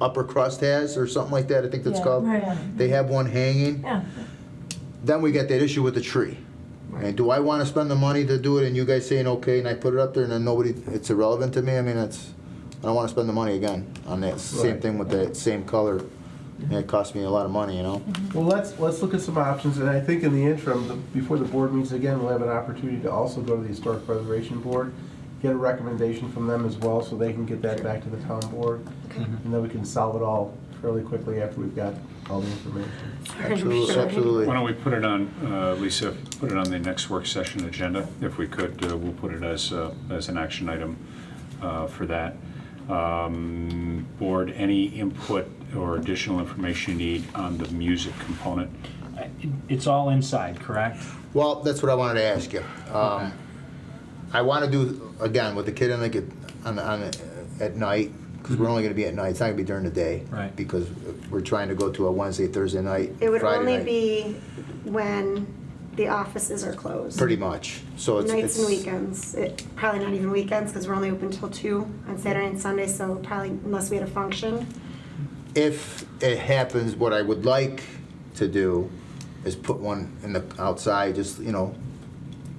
Upper Crust has, or something like that, I think that's Yeah, called. right, yeah. They have one hanging. Yeah, Then we got that issue with the tree. And do I want to spend the money to do it and you guys saying, okay, and I put it up there and then nobody, it's irrelevant to me? I mean, it's, I don't want to spend the money again on that. Same Right. thing with that same color. And it cost me a lot of money, you know? Well, let's, let's look at some options, and I think in the interim, the- before the board meets again, we'll have an opportunity to also go to the Historic Preservation Board, get a recommendation from them as well, so they can get that back to the town board. Mm-hmm. And then we can solve it all fairly quickly after we've got all the information. Absolutely, Why absolutely. don't we put it on, uh, Lisa, put it on the next work session agenda? If we could, uh, we'll put it as, uh, as an action item uh, for that. Um, Board, any input or additional information you need on the music component? I- It's all inside, correct? Well, that's what I wanted to ask you. Um, I want to do, again, with the kid on the, kid- on, the- on, the- at night, because we're only going to be at night. It's not going to be during the day. Right. Because we're trying to go to a Wednesday, Thursday night, It would Friday only night, be when the offices are closed. Pretty much. So it's. Nights and it's- weekends, it, probably not even weekends, because we're only open till two on Saturday and Sunday, so probably unless we had a function. if it happens, what I would like to do is put one in the outside, just, you know,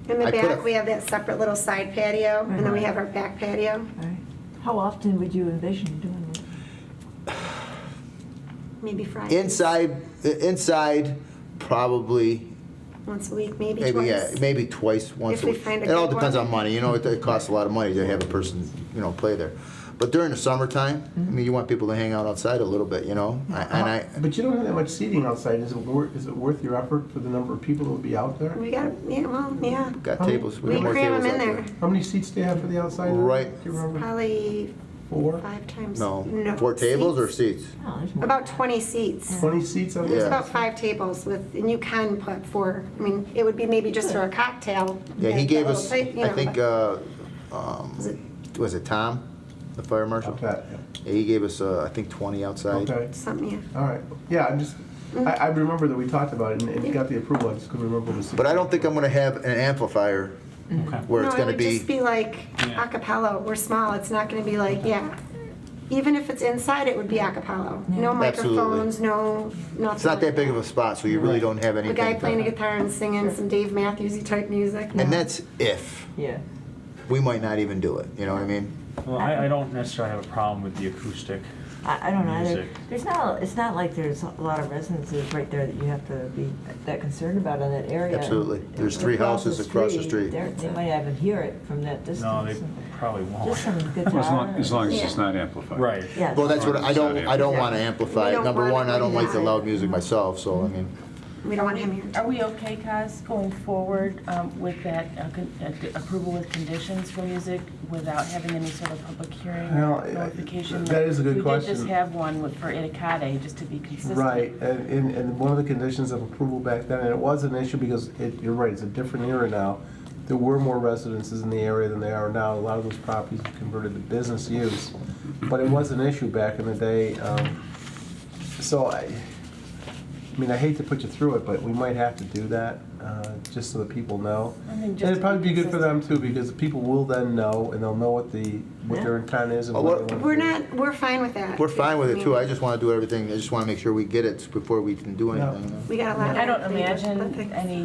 In I the put back, a- we have that separate little side patio, and then we have our back patio. all right. How often would you envision doing it? Maybe Friday. inside, inside, probably, Once a week, maybe maybe, yeah, twice. maybe twice, once a we week. find a It all good depends one. on money, you know, it it costs a lot of money to have a person, you know, play there. But during the summertime, Mm-hmm. I mean, you want people to hang out outside a little bit, you know? I- And I, Uh, But you don't have that much seating outside, is it worth, is it worth your effort for the number of people that will be out there? We got, yeah, well, yeah. got tables, we Oh, We got more cram tables them in out there, there. How many seats do you have for the outside? Right. Do you remember? probably Four? five times. No, four tables or seats. seats? No, there's more. About 20 seats. Twenty seats on Yeah. the There's about five tables with, and you can put four, I mean, it would be maybe just for a cocktail. Yeah, he that- gave that us, little plate, you I know, think, but- uh, um, Is it- was it Tom, the fire marshal? Okay, Yeah, he gave us, uh, I think, 20 outside. okay. Something, yeah. All right, yeah, I'm just, I, I remember that we talked about it and, and got the approval, I just couldn't remember the. But I don't think I'm going to have an amplifier Okay. where it's Mm-hmm. No, going to It would be. just be like Yeah. a cappella, we're small, it's not gonna be like, yeah. Even if it's inside, it would be a cappella. No Absolutely. microphones, no, nothing. It's not that big of a spot, so you really don't have A anything. guy to- playing a guitar and singing some Dave Matthewsy type music. uh, And that's if. Yeah. We might not even do it, you know what I mean? Well, I, I don't necessarily have a problem with the acoustic. I, I don't know either. Music. There's not, it's not like there's a lot of residences right there that you have to be that concerned about in that area. Absolutely. There's three Across the houses across the street. they're- They might even hear it from that No, they distance. probably won't. Just some Well, As long, as guitar. long as it's not amplified. Right. Yeah. Well, that's what, I don't, I don't want to amplify We it. don't Number want one, I it don't like the loud. loud music myself, so I mean, We don't want him here. Are we okay, Cos, going forward um, with that uh, con- uh, d- approval with conditions for music without having any sort of public hearing Well, I- notification? that is a good We did question. just have one with- for Itakade, just to be consistent. Right, and, and, and one of the conditions of approval back then, and it was an issue because it, you're right, it's a different era now. There were more residences in the area than there are now. A lot of those properties were converted to business use. But it was an issue back in the day. Um, so I, I mean, I hate to put you through it, but we might have to do that, uh, just so that people know. I think And just it'd to probably be be good for them too, because people will then know and they'll know what the, what their intent is and Oh, what what- they want. We're not, we're fine with that. we're fine with it too. mean, I just want to do everything, I just want to make sure we get it before we can do Yeah. anything. you know? We got a lot of. I don't things, but imagine things- any,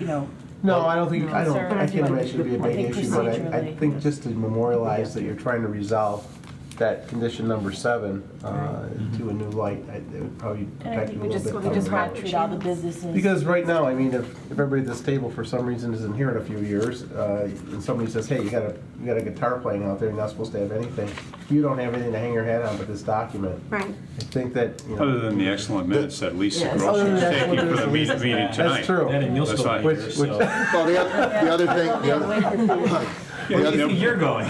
you know, No, I don't think, I don't, Concern. I can't imagine it'd be a I big think issue, but I, I procedurally. think just to memorialize that you're trying to resolve that condition number seven uh, to a new light, I- it would probably and I protect you think a we just, little we bit. just down the want to road. treat all the businesses. Because right now, I mean, if, if everybody at this table for some reason isn't here in a few years, uh, and somebody says, hey, you got a, you got a guitar playing out there, you're not supposed to have anything, you don't have anything to hang your hat on but this document. Right. I think that, you know, Other than the excellent minutes that Lisa Yes. Gross Other than was the excellent taking for minutes. the meeting meeting tonight. that's true. Then and you'll That's still fine. be here, Which- which- so. Well, the oth- the other thing, the other, Yeah, Where do you yeah. think you're going?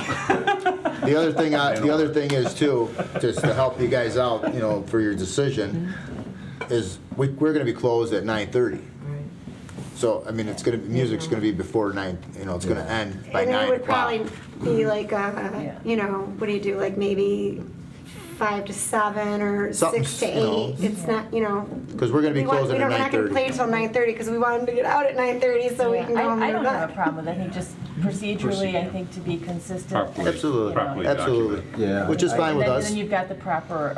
The other thing, I, the other thing is too, just to help you guys out, you know, for your decision, is we, we're gonna be closed at nine thirty. So, I mean, it's gonna, music's gonna be before nine, you know, it's gonna end by And it nine would o'clock. probably be like, uh, Yeah. you know, what do you do, like maybe five to seven or Something six to s- you know. eight? It's not, you know. Cause we're gonna be We want, we closing at don't, we're nine not gonna play thirty. till nine thirty because we want them to get out at nine thirty so we Yeah, can go home. I, I and go don't to have a bed. problem with it, I think just procedurally, I think to be consistent. Properly- Absolutely, properly absolutely. documented. yeah. Which is I- fine And with then- us. then you've got the proper